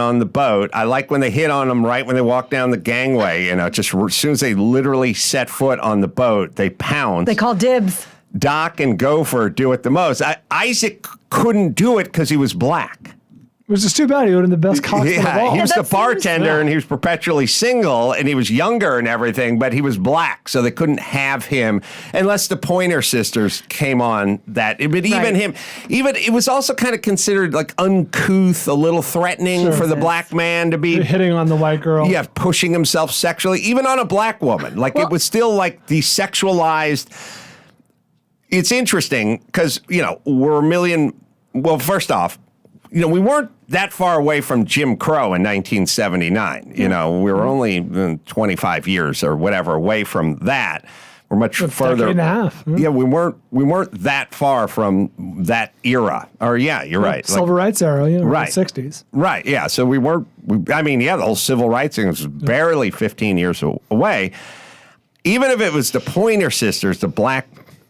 on the boat. I like when they hit on them right when they walk down the gangway. You know, just as soon as they literally set foot on the boat, they pound. They call dibs. Doc and Gopher do it the most. I, Isaac couldn't do it because he was black. Which is too bad. He would have been the best cock in the Yeah, ball. he was Yeah, the that seems- bartender and he was perpetually single and he was younger and everything, but he was black, so they couldn't have him unless the Pointer Sisters came on that. eh, But even Right. him, even it was also kind of considered like uncouth, a little threatening for the black man to be. hitting on the white girl. Yeah, pushing himself sexually, even on a black woman. Like it was still like the sexualized. It's interesting because you know we're a million. Well, first off, you know we weren't that far away from Jim Crow in 1979. You know we Mm-hmm. were only uh, 25 years or whatever away from that. We're much further. decade and a half. mm-hmm. Yeah, we weren't we weren't that far from that era. Or yeah, you're right. Like- Silver rights era, you know, Right. right. 60s. Right. Yeah. So we weren't. We, I mean, yeah, the whole civil rights thing was barely 15 years a- away. Even if it was the Pointer Sisters, the black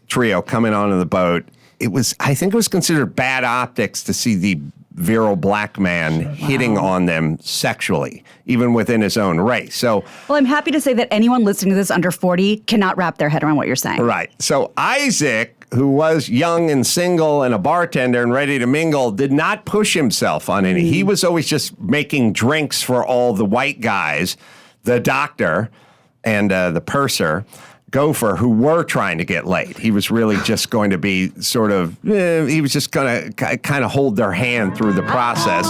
trio coming onto the boat, it was. I think it was considered bad optics to see the virile black man hitting on them sexually, even within his own race. So. Well, I'm happy to say that anyone listening to this under 40 cannot wrap their head around what you're saying. Right. So Isaac, who was young and single and a bartender and ready to mingle, did not push himself on any. He was always just making drinks for all the white guys, the doctor and uh, the purser. Gopher, who were trying to get laid, he was really just going to be sort of, eh, he was just going to kind of hold their hand through the process.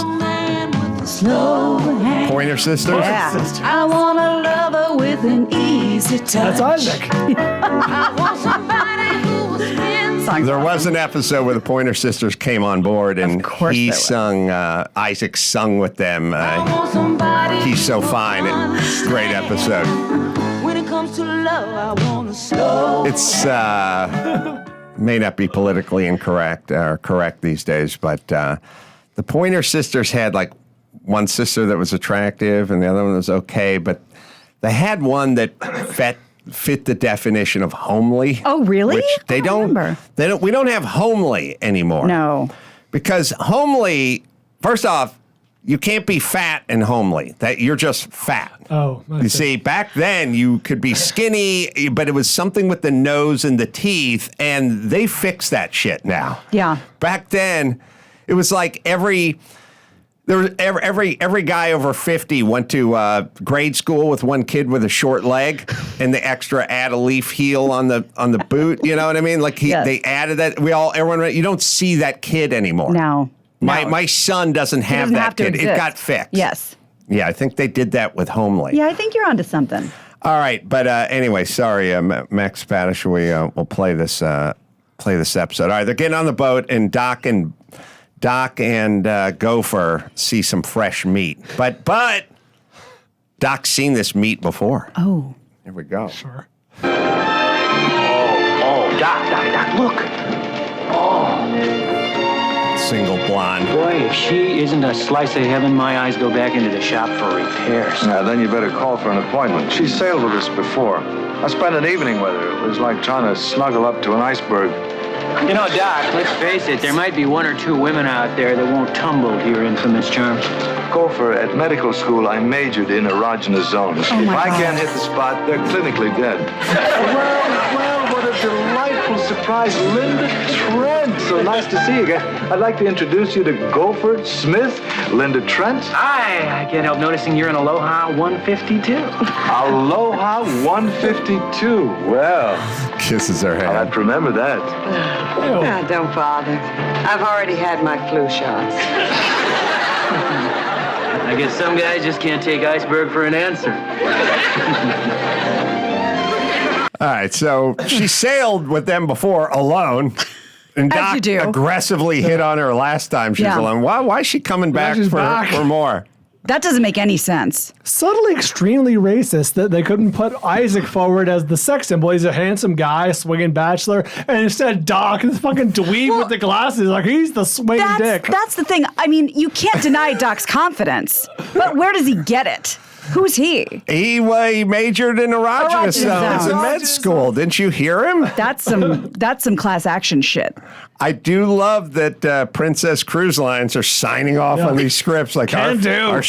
Pointer sisters? Yeah. I want a lover with an easy touch. That's Isaac. I want somebody who will spend Song's There awesome. was an episode where the Pointer Sisters came on board, and course he there was. sung. Uh, Isaac sung with them. Uh, want somebody he's so who fine. It, great episode. understands. When it comes to love, I want to slow. It's uh, may not be politically incorrect or correct these days, but uh, the Pointer Sisters had like one sister that was attractive, and the other one was okay, but they had one that fit fit the definition of homely. Oh, really? Which I they don't don't. remember. They don't. We don't have homely anymore. No. because homely first off you can't be fat and homely that you're just fat Oh, I you see. see back then you could be skinny but it was something with the nose and the teeth and they fixed that shit now Yeah. back then it was like every there was every every, every guy over 50 went to uh, grade school with one kid with a short leg and the extra add a leaf heel on the on the boot you know what i mean like he, Yes. they added that we all everyone you don't see that kid anymore No. my No. my son doesn't It have doesn't that have to kid it exist. got fixed Yes. yeah i think they did that with homely Yeah, I think you're onto something. all right, but uh, anyway, sorry, uh, Ma- Max Spanish. We uh, will play this uh, play this episode. All right, they're getting on the boat, and Doc and Doc and uh, Gopher see some fresh meat, but but Doc's seen this meat before. Oh. Here we go. Oh, Doc, Doc, Doc, look. Single blonde. Boy, if she isn't a slice of heaven, my eyes go back into the shop for repairs. Now, Uh, then you better call for an appointment. She sailed with us before. I spent an evening with her. It was like trying to snuggle up to an iceberg. You know, Doc, let's face it, there might be one or two women out there that won't tumble to your infamous charms. Gopher, at medical school, I majored in erogenous zones. Oh, my if I God. can't hit the spot, they're clinically dead. well, well, what a delightful surprise. Linda Trent. So nice to see you again. I'd like to introduce you to Gopher Smith, Linda Trent. I, I can't help noticing you're in Aloha 152. Aloha 152. Well, Kisses her I'll have hand. to remember that. Ah, don't bother. I've already had my flu shots. I guess some guys just can't take iceberg for an answer. All right, so she sailed with them before alone. And As Doc you do. aggressively hit on her last time she was Yeah. alone. Why, why is she coming back she's for, back. for more? That doesn't make any sense. Subtly extremely racist that they couldn't put Isaac forward as the sex symbol. He's a handsome guy, swinging bachelor, and instead Doc, this fucking dweeb Well, with the glasses, like he's the swing That's dick. that's the thing. I mean, you can't deny Doc's confidence. But where does he get it? Who's he? He, wa- he E majored in erogenous Erogenous zones in zones. med school. Didn't you hear him? That's some that's some class action shit. I do love that uh, Princess Cruise Lines are signing off on these scripts. Like Can our, do. our